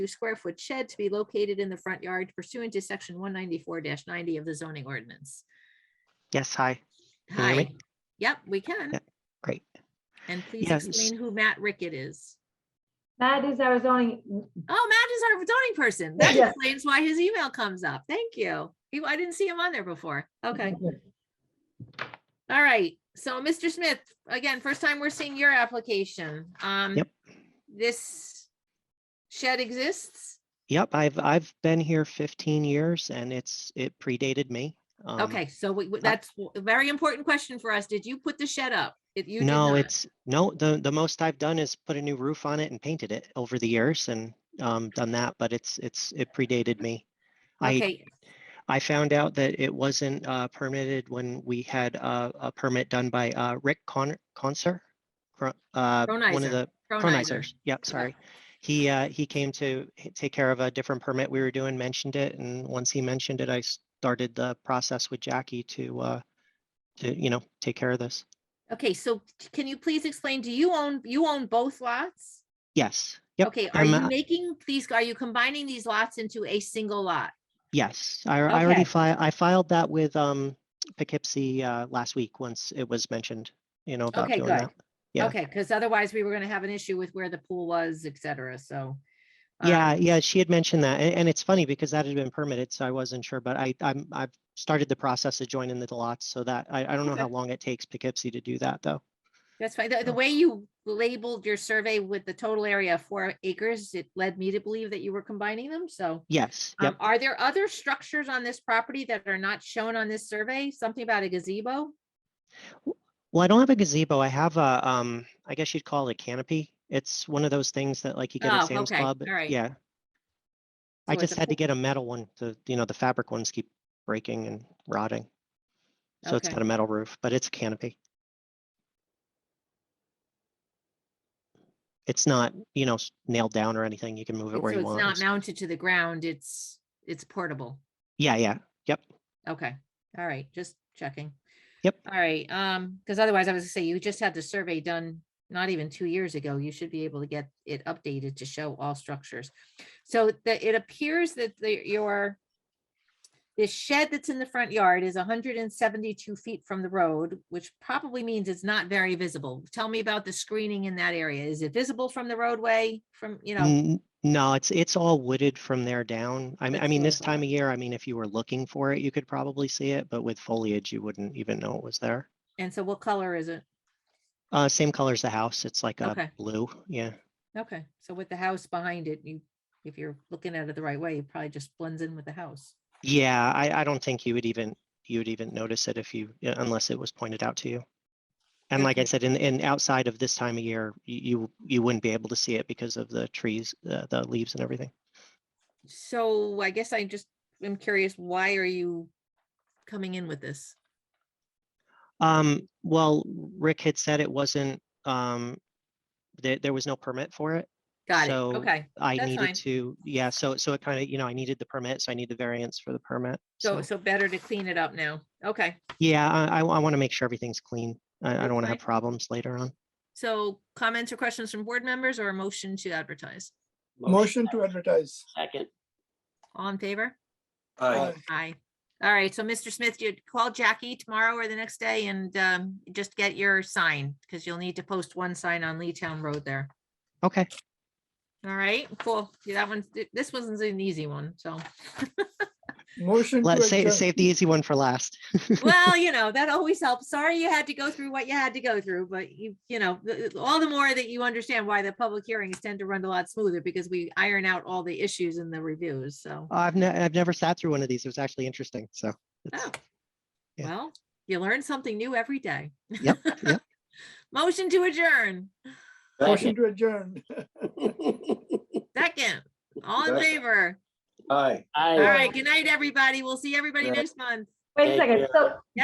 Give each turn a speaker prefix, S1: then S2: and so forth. S1: square foot shed to be located in the front yard pursuant to section one ninety-four ninety of the zoning ordinance.
S2: Yes, hi. Can you hear
S1: Hi,
S2: me?
S1: yep, we can.
S2: Yeah, great.
S1: And please
S2: Yes.
S1: explain who Matt Rickett is.
S3: That is our zoning,
S1: Oh, Matt is our zoning person. That
S3: Yeah.
S1: explains why his email comes up. Thank you. He- I didn't see him on there before. Okay. All right. So, Mr. Smith, again, first time we're seeing your application. Um,
S2: Yep.
S1: This shed exists?
S2: Yep, I've, I've been here 15 years and it's, it predated me. Um,
S1: Okay, so we, we- that's a very important question for us. Did you put the shed up? If you did
S2: No,
S1: not-
S2: it's, no, the, the most I've done is put a new roof on it and painted it over the years and um, done that, but it's, it's, it predated me. I,
S1: Okay,
S2: I found out that it wasn't uh, permitted when we had uh, a permit done by uh, Rick Conner, Conser? Cro- uh, One of
S1: Cronizer.
S2: the
S1: Cronizer.
S2: Chronizers, yep, sorry. He, uh, he came to h- take care of a different permit we were doing, mentioned it, and once he mentioned it, I started the process with Jackie to, uh, to, you know, take care of this.
S1: Okay, so can you please explain, do you own, you own both lots?
S2: Yes, yep,
S1: Okay, are
S2: I'm,
S1: you
S2: uh,
S1: making these, are you combining these lots into a single lot?
S2: yes. I, I already
S1: Okay.
S2: filed, I filed that with, um, Poughkeepsie, uh, last week, once it was mentioned, you know, about
S1: Okay,
S2: doing
S1: good.
S2: that. Yeah.
S1: Okay, because otherwise we were gonna have an issue with where the pool was, et cetera, so. um,
S2: Yeah, yeah, she had mentioned that, and, and it's funny because that had been permitted, so I wasn't sure, but I, I'm, I've started the process of joining the lots, so that, I, I don't know
S1: Okay.
S2: how long it takes Poughkeepsie to do that, though.
S1: That's fine. The, the way you labeled your survey with the total area of four acres, it led me to believe that you were combining them, so.
S2: Yes,
S1: Um,
S2: yep,
S1: are there other structures on this property that are not shown on this survey? Something about a gazebo?
S2: well, I don't have a gazebo, I have a, um, I guess you'd call it a canopy, it's one of those things that like you get
S1: Oh,
S2: at Sam's
S1: okay,
S2: Club,
S1: all right.
S2: yeah. I
S1: So it's
S2: just
S1: a
S2: had to
S1: pool-
S2: get a metal one, the, you know, the fabric ones keep breaking and rotting. So it's
S1: Okay.
S2: got a metal roof, but it's a canopy. It's not, you know, s- nailed down or anything, you can move it
S1: It's-
S2: where
S1: So
S2: you
S1: it's not
S2: want.
S1: mounted to the ground, it's, it's portable.
S2: Yeah, yeah,
S1: Okay, all right, just checking.
S2: Yep.
S1: All right, um, because otherwise I was gonna say, you just had the survey done not even two years ago. You should be able to get it updated to show all structures. So that it appears that the, your this shed that's in the front yard is hundred and seventy-two feet from the road, which probably means it's not very visible. Tell me about the screening in that area. Is it visible from the roadway, from, you know?
S2: N- No, it's, it's all wooded from there down. I mean, I
S1: That's
S2: mean,
S1: what I
S2: this time of year, I mean, if you were looking for it, you could probably see it, but with foliage, you wouldn't even know it was there.
S1: And so what color is it?
S2: Uh, same color as the house, it's like
S1: Okay.
S2: a blue, yeah.
S1: Okay, so with the house behind it, you, if you're looking at it the right way, it probably just blends in with the house.
S2: Yeah, I, I don't think you would even, you would even notice it if you, yeah, unless it was pointed out to you. And like I
S1: Okay.
S2: said, in, in outside of this time of year, y- you, you wouldn't be able to see it because of the trees, the, the leaves and everything.
S1: So I guess I just am curious, why are you coming in with this?
S2: Um, well, Rick had said it wasn't, um, there, there was no permit for it.
S1: Got it,
S2: So,
S1: okay.
S2: I
S1: That's fine.
S2: needed to, yeah, so, so it kind of, you know, I needed the permit, so I need the variance for the permit.
S1: So, so better to clean it up now. Okay,
S2: Yeah, I, I, want to make sure everything's clean. I, I
S1: That's
S2: don't want to
S1: fine.
S2: have problems later on.
S1: so comments or questions from board members or a motion to advertise?
S4: Motion to
S5: advertise.
S4: advertise.
S5: Second.
S1: All in favor?
S4: Aye.
S1: Aye. All right, so Mr. Smith, you call Jackie tomorrow or the next day and um, just get your sign, because you'll need to post one sign on Lee Town Road there.
S2: Okay,
S1: All right, cool. Yeah, That one's, th- this one's an easy one, so.
S4: Motion to
S2: let's say,
S4: adjourn.
S2: save the easy one for last.
S1: Well, you know, that always helps. Sorry you had to go through what you had to go through, but you, you know, th- all the more that you understand why the public hearings tend to run a lot smoother because we iron out all the issues in the reviews, so.
S2: I've ne- I've never sat through one of these. It was actually interesting. So it's,
S1: Oh,
S2: yeah.
S1: Well, you learn something new every day.
S2: Yep, yep.
S1: Motion to adjourn.
S4: Motion to adjourn.
S1: Second, all in
S4: Second.
S1: favor.
S4: Aye.
S1: All right, good night, everybody. We'll see everybody
S4: Right.
S1: next month.
S3: wait a
S5: Take
S3: second,
S5: care.
S3: so